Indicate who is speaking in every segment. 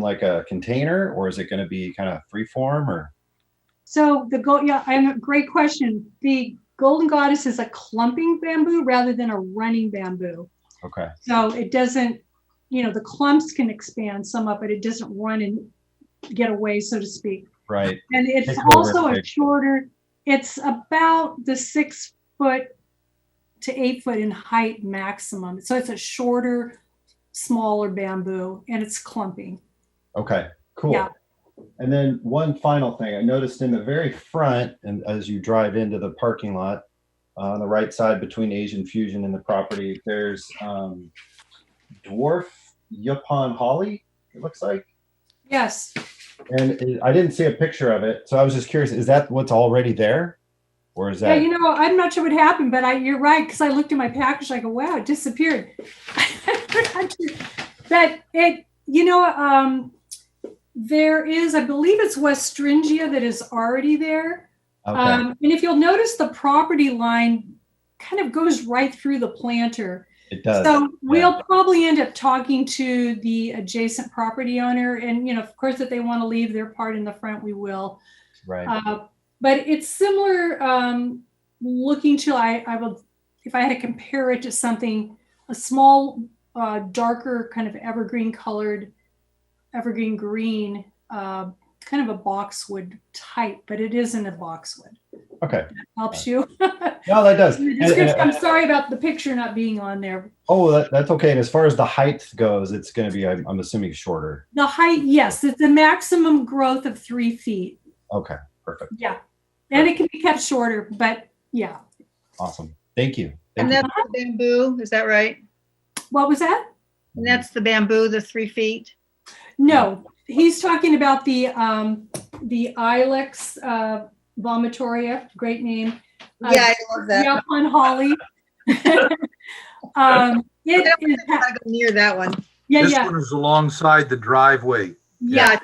Speaker 1: like a container or is it going to be kind of freeform or?
Speaker 2: So the gold, yeah, I have a great question. The golden goddess is a clumping bamboo rather than a running bamboo.
Speaker 1: Okay.
Speaker 2: So it doesn't, you know, the clumps can expand some up, but it doesn't run and get away, so to speak.
Speaker 1: Right.
Speaker 2: And it's
Speaker 1: Take over
Speaker 2: also a
Speaker 1: big.
Speaker 2: shorter, it's about the six foot to eight foot in height maximum. So it's a shorter, smaller bamboo and it's clumping.
Speaker 1: Okay. Cool.
Speaker 2: Yeah.
Speaker 1: And then one final thing I noticed in the very front, and as you drive into the parking lot uh, on the right side between Asian Fusion and the property, there's um, dwarf Yupon holly. It looks like,
Speaker 2: Yes.
Speaker 1: and it, I didn't see a picture of it, so I was just curious: is that what's already there, or is that?
Speaker 2: Yeah, you know, I'm not sure what happened, but I, you're right, because I looked at my package, I go, wow, it disappeared. But it, you know, um, there is, I believe it's Westringia that is already there.
Speaker 1: okay.
Speaker 2: Um, and if you'll notice, the property line kind of goes right through the planter.
Speaker 1: it does.
Speaker 2: So we'll probably end up talking to the adjacent property owner and, you know, of course, if they want to leave their part in the front, we will.
Speaker 1: right.
Speaker 2: Uh, but it's similar um, looking to I, I will if I had to compare it to something a small uh, darker kind of evergreen colored evergreen green uh, kind of a boxwood type but it isn't a boxwood
Speaker 1: okay.
Speaker 2: helps you
Speaker 1: No, that does.
Speaker 2: The
Speaker 1: And- and-
Speaker 2: description- I'm sorry about the picture not being on there
Speaker 1: oh, that, that's okay. And as far as the height goes, it's going to be, I'm, I'm assuming, shorter.
Speaker 2: the height yes it's a maximum growth of three feet
Speaker 1: Okay. Perfect.
Speaker 2: yeah and it can be kept shorter but yeah
Speaker 1: Awesome. Thank you. Thank
Speaker 3: And
Speaker 1: you.
Speaker 3: that's the bamboo, is that right?
Speaker 2: what was that
Speaker 3: And that's the bamboo, the three feet?
Speaker 2: No, he's talking about the um, the Ilex uh, vomitoria, great name. Uh,
Speaker 3: Yeah, I love that.
Speaker 2: Yep, on Holly. um, it
Speaker 3: That
Speaker 2: is,
Speaker 3: I gotta go near that one.
Speaker 2: yeah,
Speaker 4: This
Speaker 2: yeah,
Speaker 4: one is alongside the driveway.
Speaker 3: Yeah,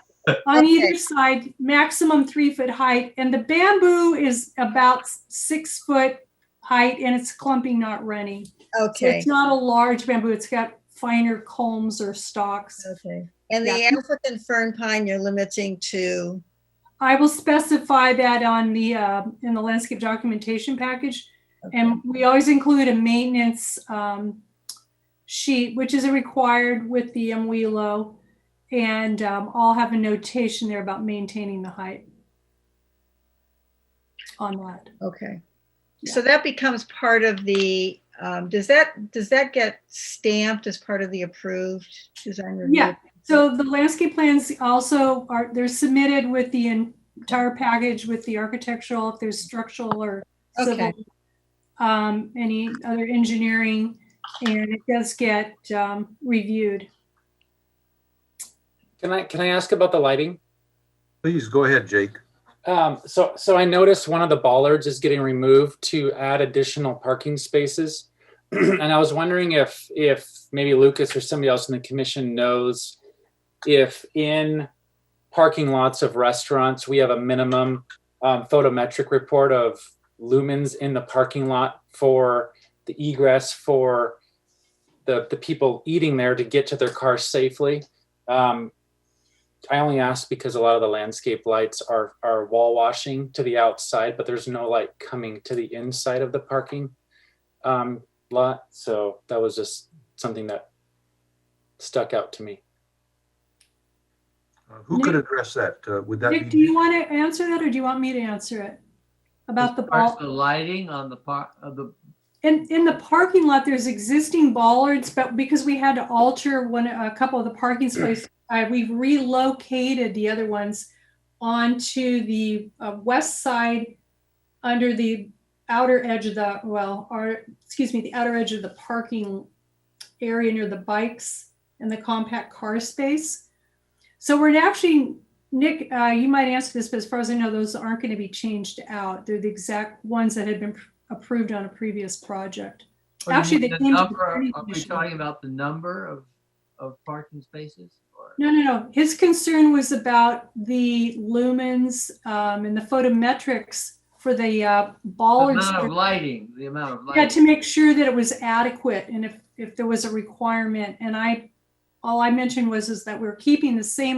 Speaker 2: on either
Speaker 3: okay.
Speaker 2: side, maximum three foot height, and the bamboo is about six foot height, and it's clumping, not running. So
Speaker 3: okay,
Speaker 2: it's not a large bamboo. It's got finer culms or stalks.
Speaker 3: okay. And the
Speaker 2: Yeah.
Speaker 3: African fern pine, you're limiting to,
Speaker 2: I will specify that on the, uh, in the landscape documentation package. And we always include a maintenance um, sheet, which is required with the MWELO. And um, I'll have a notation there about maintaining the height on that.
Speaker 3: okay.
Speaker 2: Yeah.
Speaker 3: So that becomes part of the, um, does that, does that get stamped as part of the approved design review?
Speaker 2: Yeah. So the landscape plans also are, they're submitted with the entire package with the architectural, if there's structural or civil,
Speaker 3: Okay.
Speaker 2: um, any other engineering, and it does get, um, reviewed.
Speaker 5: Can I can I ask about the lighting?
Speaker 4: Please go ahead, Jake.
Speaker 5: Um, so so I noticed one of the bollards is getting removed to add additional parking spaces, and I was wondering if if maybe Lucas or somebody else in the commission knows if in parking lots of restaurants we have a minimum um, photometric report of lumens in the parking lot for the egress for the the people eating there to get to their cars safely. Um, I only asked because a lot of the landscape lights are are wall washing to the outside, but there's no light coming to the inside of the parking um, lot. So that was just something that stuck out to me.
Speaker 4: Uh, Who could address that? Uh, Would that
Speaker 2: Nick, do
Speaker 4: be?
Speaker 2: you want to answer that, or do you want me to answer it? About the
Speaker 6: As far as
Speaker 2: ball,
Speaker 6: The lighting on the part of the,
Speaker 2: in, in the parking lot, there's existing bollards, but because we had to alter one, a couple of the parking spaces, uh, we've relocated the other ones onto the uh, west side, under the outer edge of the, well, or, excuse me, the outer edge of the parking area near the bikes and the compact car space. So we're actually, Nick, uh, you might answer this, but as far as I know, those aren't going to be changed out. They're the exact ones that had been approved on a previous project.
Speaker 6: Oh, you
Speaker 2: Actually,
Speaker 6: mean
Speaker 2: they
Speaker 6: the
Speaker 2: came to the
Speaker 6: number-
Speaker 2: planning
Speaker 6: Are we
Speaker 2: commission.
Speaker 6: talking about the number of, of parking spaces? or-
Speaker 2: No, no, no. His concern was about the lumens um, and the photometrics for the uh,
Speaker 6: The
Speaker 2: bollards.
Speaker 6: amount of lighting, the amount of
Speaker 2: Yeah, to
Speaker 6: lighting.
Speaker 2: make sure that it was adequate and if, if there was a requirement. And I, all I mentioned was is that we're keeping the same